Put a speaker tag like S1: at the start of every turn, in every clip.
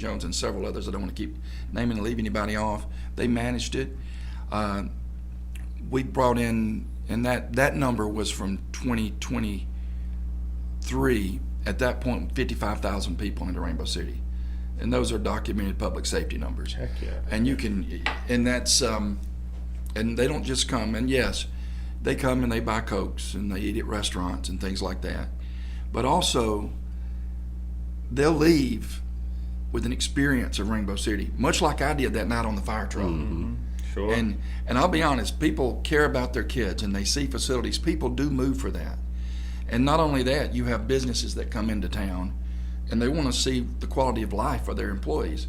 S1: Jones and several others. I don't want to keep naming and leave anybody off. They managed it. Uh, we brought in, and that, that number was from 2023. At that point, 55,000 people into Rainbow City. And those are documented public safety numbers.
S2: Heck yeah.
S1: And you can, and that's, um, and they don't just come, and yes, they come and they buy Cokes and they eat at restaurants and things like that. But also, they'll leave with an experience of Rainbow City, much like I did that night on the fire truck.
S2: Sure.
S1: And and I'll be honest, people care about their kids and they see facilities. People do move for that. And not only that, you have businesses that come into town and they want to see the quality of life for their employees.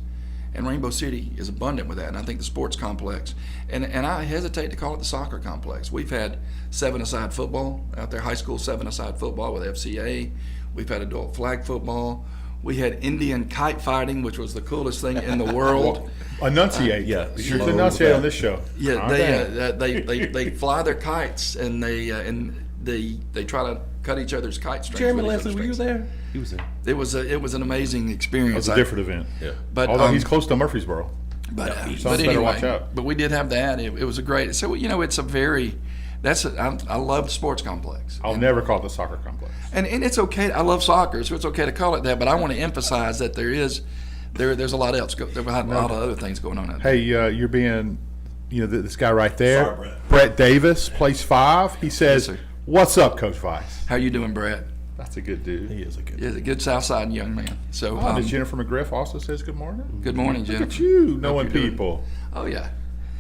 S1: And Rainbow City is abundant with that. And I think the sports complex and, and I hesitate to call it the soccer complex. We've had seven aside football out there, high school seven aside football with FCA. We've had adult flag football. We had Indian kite fighting, which was the coolest thing in the world.
S2: enunciate.
S3: yeah,
S2: You should
S3: slow
S2: enunciate on
S3: down.
S2: this show.
S1: Yeah,
S2: Calm down.
S1: they, uh, they they they fly their kites and they uh, and they they try to cut each other's kite strings.
S3: Jeremy
S1: with each
S3: Leslie, were you
S1: other's strings.
S3: there? He was there.
S1: It was a, it was an amazing experience.
S2: It's a
S1: I-
S2: different event.
S3: Yeah.
S1: but
S2: Although
S1: um,
S2: he's close to Murfreesboro.
S1: but, uh,
S2: Something
S1: but
S2: better
S1: anyway,
S2: watch out.
S1: but we did have that. It, it was a great. So you know, it's a very that's a, I, I love the sports complex.
S2: I'll never call it the soccer complex.
S1: and and it's okay. I love soccer, so it's okay to call it that. But I want to emphasize that there is there there's a lot else. go- There's a lot of other things going on. Out there.
S2: Hey, uh, you're being, you know, th- this guy right there,
S3: Sorry, Brett.
S2: Davis, place five. He says,
S1: sir.
S2: "What's up, Coach Vice?"
S1: How you doing, Brett?
S2: That's a good dude.
S3: He is a good.
S1: Is a good South Side young man. So
S2: Oh,
S1: um,
S2: and Jennifer McGriff also says, "Good morning."
S1: good morning,
S2: Look at
S1: Jennifer.
S2: you knowing
S1: you're doing-
S2: people.
S1: Oh yeah.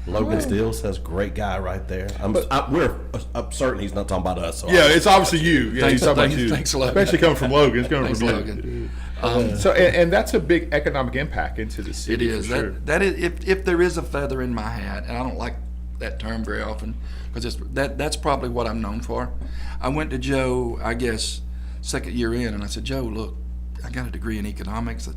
S3: Logan Steele says, "Great guy right there." I'm, I, we're I'm certain he's not talking about us. So
S2: Yeah, it's obviously you. Yeah,
S1: Thanks-
S2: he's talking
S1: thanks-
S2: about you.
S1: thanks, Logan.
S2: Especially coming from Logan. It's coming
S1: Thanks,
S2: from
S1: Logan.
S2: Logan. so, and, and that's a big economic impact into the
S1: Um, It
S2: city.
S1: is
S2: for sure.
S1: that that is if if there is a feather in my hat, and I don't like that term very often because it's that that's probably what I'm known for. I went to Joe, I guess, second year in, and I said, Joe, look, I got a degree in economics. I-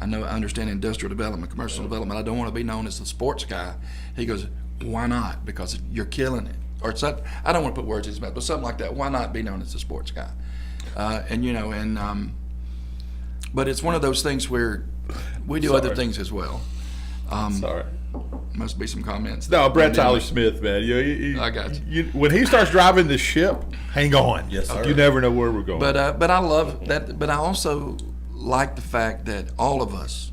S1: I know I understand industrial development, commercial development. I don't want to be known as the sports guy. He goes, why not? Because you're killing it. Or something. I don't want to put words in his mouth, but something like that. Why not be known as the sports guy? Uh, and you know, and um, but it's one of those things where we do other
S2: Sorry.
S1: things as well. um,
S2: Sorry.
S1: Must be some comments.
S2: No, Brett
S1: And then-
S2: Tyler Smith, man. You, you, you-
S1: I got you.
S2: When he starts driving the ship, hang on.
S3: Yes, sir.
S2: You never know where we're going.
S1: But uh, but I love that. But I also like the fact that all of us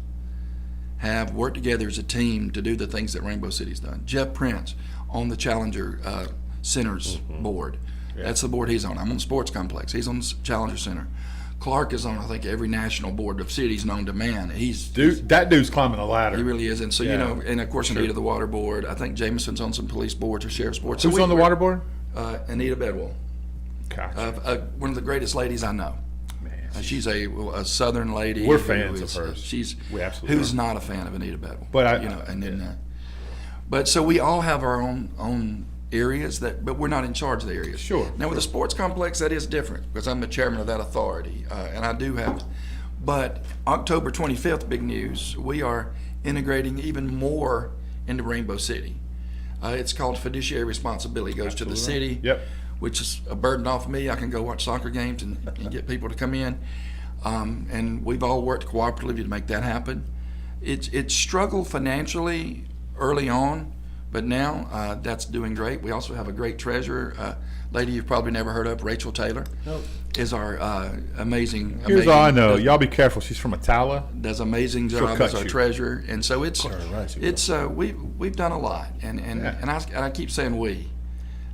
S1: have worked together as a team to do the things that Rainbow City's done. Jeff Prince on the Challenger uh, Center's
S2: Mm-hmm.
S1: board. That's the board he's on. I'm on the Sports Complex. He's on the S- Challenger Center. Clark is on, I think, every national board of cities known to man. He's
S2: Dude, that dude's climbing the ladder.
S1: He really is, and so you
S2: Yeah.
S1: know, and of course, Anita the water board. I think Jameson's on some police boards or sheriff's boards. So
S2: Who's
S1: we-
S2: on the water board?
S1: Uh, Anita Bedwell,
S2: Gotcha.
S1: uh, uh, one of the greatest ladies I know.
S2: man.
S1: Uh, She's a, a Southern lady.
S2: We're
S1: who
S2: fans of
S1: is-
S2: hers.
S1: She's
S2: We absolutely
S1: who's
S2: are.
S1: not a fan of Anita Bedwell.
S2: But I-
S1: you know, and then, uh, but so we all have our own own areas that, but we're not in charge of the areas.
S2: Sure,
S1: Now with the sports complex, that is different because I'm the chairman of that authority, uh, and I do have. But October 25th, big news. We are integrating even more into Rainbow City. Uh, it's called fiduciary responsibility. Goes to the city
S2: Yep.
S1: which is a burden off me. I can go watch soccer games and, and get people to come in. Um, and we've all worked cooperatively to make that happen. It's it's struggled financially early on, but now uh, that's doing great. We also have a great treasurer, uh, lady you've probably never heard of, Rachel Taylor, is our uh, amazing.
S2: Here's
S1: amazing,
S2: all I know.
S1: does-
S2: Y'all be careful. She's from Atala.
S1: does amazing job
S2: cut
S1: as our
S2: you.
S1: treasurer, and so it's
S3: right, she will.
S1: it's uh, we we've done a lot, and and
S2: Yeah.
S1: and, I, and I keep saying we,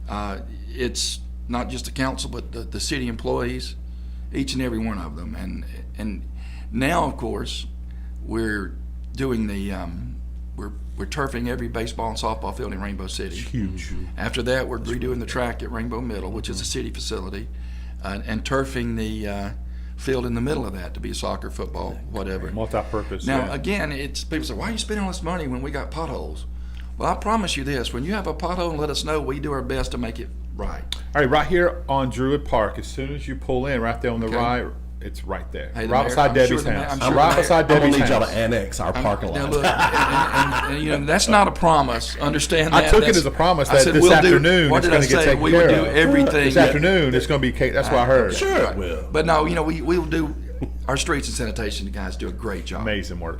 S1: uh, it's not just the council, but the, the city employees, each and every one of them, and and now of course we're doing the um, we're we're turfing every baseball and softball field in Rainbow City.
S2: Huge.
S1: After that, we're redoing the track at Rainbow Middle, which
S2: Mm-hmm.
S1: is a city facility, uh, and turfing the uh, field in the middle of that to be soccer, football, whatever.
S2: Multi-purpose.
S1: Now, uh,
S2: yeah.
S1: again, it's people say, why are you spending all this money when we got potholes? Well, I promise you this: when you have a pothole, let us know. We do our best to make it right.
S2: All right, right here on Druid Park. As soon as you pull in, right there on the
S1: Okay.
S2: right, it's right there.
S1: Hey, the
S2: right
S1: mayor-
S2: beside
S1: I'm sure
S2: Debbie's
S1: the mayor-
S2: house.
S1: I'm sure
S2: right
S1: the mayor-
S2: beside
S3: I'm gonna
S2: Debbie's
S3: need y'all
S2: house.
S3: to annex our parking
S1: Now,
S3: lot.
S1: look, and, and- and- and, you know that's not a promise. Understand
S2: I
S1: that.
S2: took it
S1: That's-
S2: as a promise
S1: I
S2: that
S1: said,
S2: this
S1: we'll do-
S2: afternoon
S1: what
S2: it's
S1: did I
S2: going to get
S1: say?
S2: taken
S1: we
S2: care
S1: would do
S2: of.
S1: everything.
S2: This
S1: that-
S2: afternoon it's going to be cake. That's what I heard.
S3: sure, it will.
S1: But no, you know, we, we'll do, our streets and sanitation guys do a great job.
S2: Amazing work.